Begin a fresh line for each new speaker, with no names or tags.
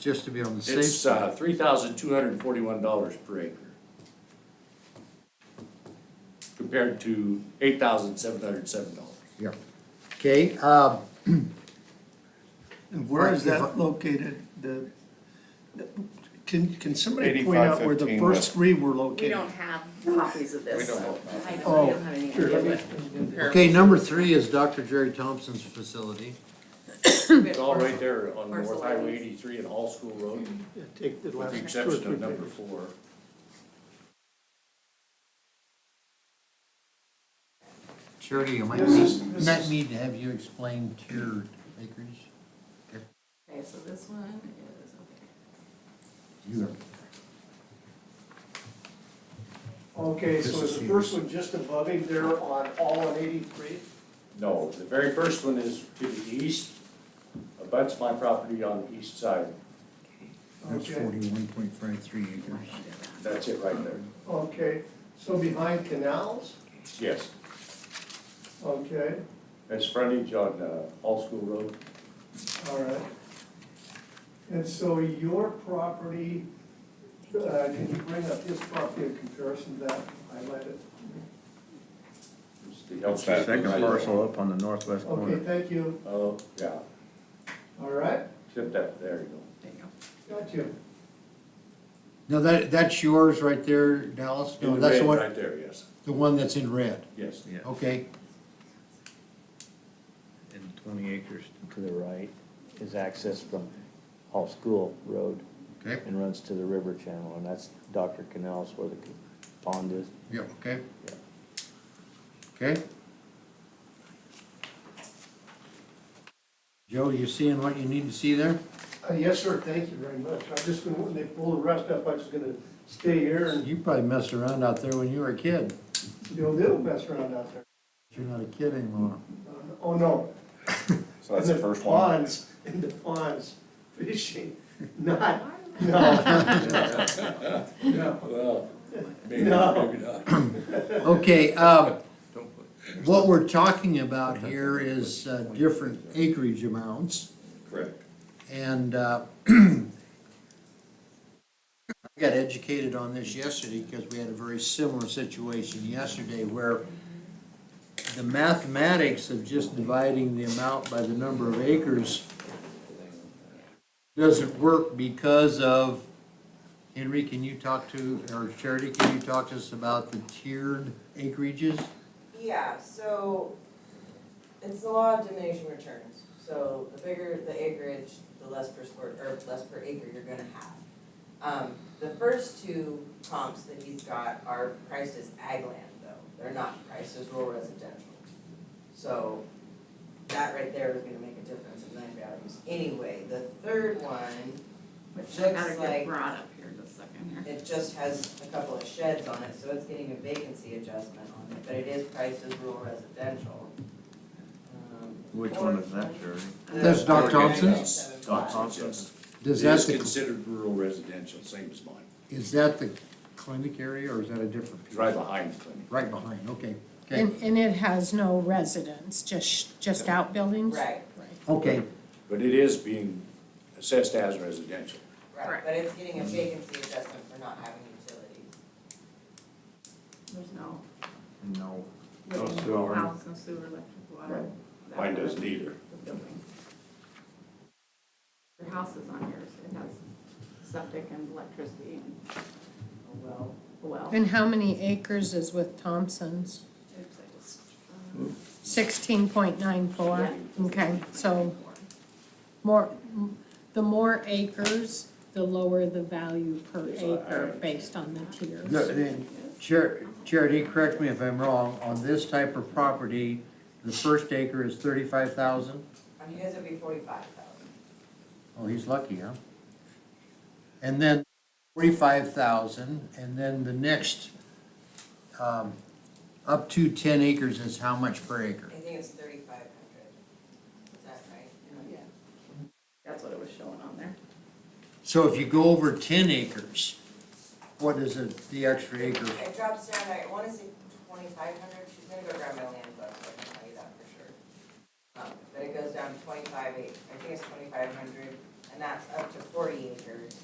just to be on the safe
It's,
side.
uh, three thousand two hundred and forty-one dollars per acre. Compared to eight thousand seven hundred and seven dollars.
Yeah. Okay, uh,
And Where is
Right, if I-
that located? The, the- can, can somebody point out where the
8515
first
West.
three were
We
located?
don't have copies of this,
We don't
so
have
I don't, I
Oh,
don't have any
sure,
idea what.
okay, number three is Dr. Jerry Thompson's facility.
It's all right there on
Parcel
North Highway
IDs.
eighty-three and All School Road,
Yeah, Take the
with
last
the
two or
exception
three
of number
pages.
four.
Charity, you might
This is-
need,
this
might
is-
need to have you explain tiered acreage.
Okay, so this one is, okay.
You are-
Okay,
This
so
is
is the
huge.
first one just above him there on all of eighty-three?
No, the very first one is to the east, abuts my property on the east side,
That's
Okay,
forty-one point five three acres.
that's it right there,
okay, so behind canals,
yes.
okay,
That's frontage on, uh, All School Road,
all right. And so your property, uh, can you bring up his property in comparison to that highlighted?
it's the
That's that
LCC.
Second parcel up on the northwest
Okay,
corner.
thank you,
Oh, yeah,
all right,
except that, there you go.
there you
got you.
No, that, that's yours right there, Dallas? No,
In
that's the
red
one,
Right there, yes,
the one that's in red.
yes.
Yeah,
Okay,
and twenty acres.
to the right is access from Hall School Road
okay,
and runs to the river channel, and that's Dr. Canal's where the pond is.
yeah, okay. Okay? Joe, you seeing what you need to see there?
Uh, Yes, sir, thank you very much. I just, been- when they pull the rest up, I was gonna stay here and,
You probably messed around out there when you were a kid.
you know, they'll mess around out there.
You're not a kid anymore.
Uh, Oh, no.
So that's the
In
first one.
Ponds, in the ponds, fishing, not, no. No.
Well, maybe,
No.
maybe not.
Okay, um, what we're talking about here is uh, different acreage amounts,
Correct.
and, uh, I got educated on this yesterday, because we had a very similar situation yesterday, where the mathematics of just dividing the amount by the number of acres doesn't work because of, Henry, can you talk to, or Charity, can you talk to us about the tiered acreages?
Yeah, so it's the law of diminishing returns. So the bigger the acreage, the less per square, or less per acre you're gonna have. Um, the first two comps that he's got are priced as ag land though, they're not priced as rural residential. So that right there is gonna make a difference in land values. Anyway, the third one,
Which I gotta
Looks
get
like-
brought up here in a second here.
it just has a couple of sheds on it, so it's getting a vacancy adjustment on it, but it is priced as rural residential. Um,
Which one is that, Jerry?
That's Doc Thompson's?
Yes.
Does
It
that,
is
the-
considered rural residential, same as mine.
is that the clinic area, or is that a different?
It's right behind the clinic.
Right behind, okay, okay,
And, and it has no residence, just, just outbuildings?
Right,
okay,
But it is being assessed as residential.
right, but it's getting a vacancy adjustment for not having utilities.
There's no,
No.
no
No sewer.
house, no sewer, electric, water. that
Mine
one,
doesn't either.
the building. Your house is on yours, it has septic and electricity and
Oh, well.
a well.
And how many acres is with Thompson's?
It's like this,
Sixteen point nine four?
yeah.
Okay, so more, the more acres, the lower the value per
Yes, I- I
acre
understand.
based on the tiers.
No, then, Char- Charity, correct me if I'm wrong, on this type of property, the first acre is thirty-five thousand?
On his it'd be forty-five thousand.
Oh, he's lucky, huh? And then forty-five thousand, and then the next, um, up to ten acres is how much per acre?
I think it's thirty-five hundred. Is that right?
Yeah. That's what it was showing on there.
So if you go over ten acres, what is it, the extra acre?
It drops down, I wanna say twenty-five hundred, she's gonna go grab my land book, so I can tell you that for sure. Um, but it goes down to twenty-five eight, I think it's twenty-five hundred, and and that's up to forty acres.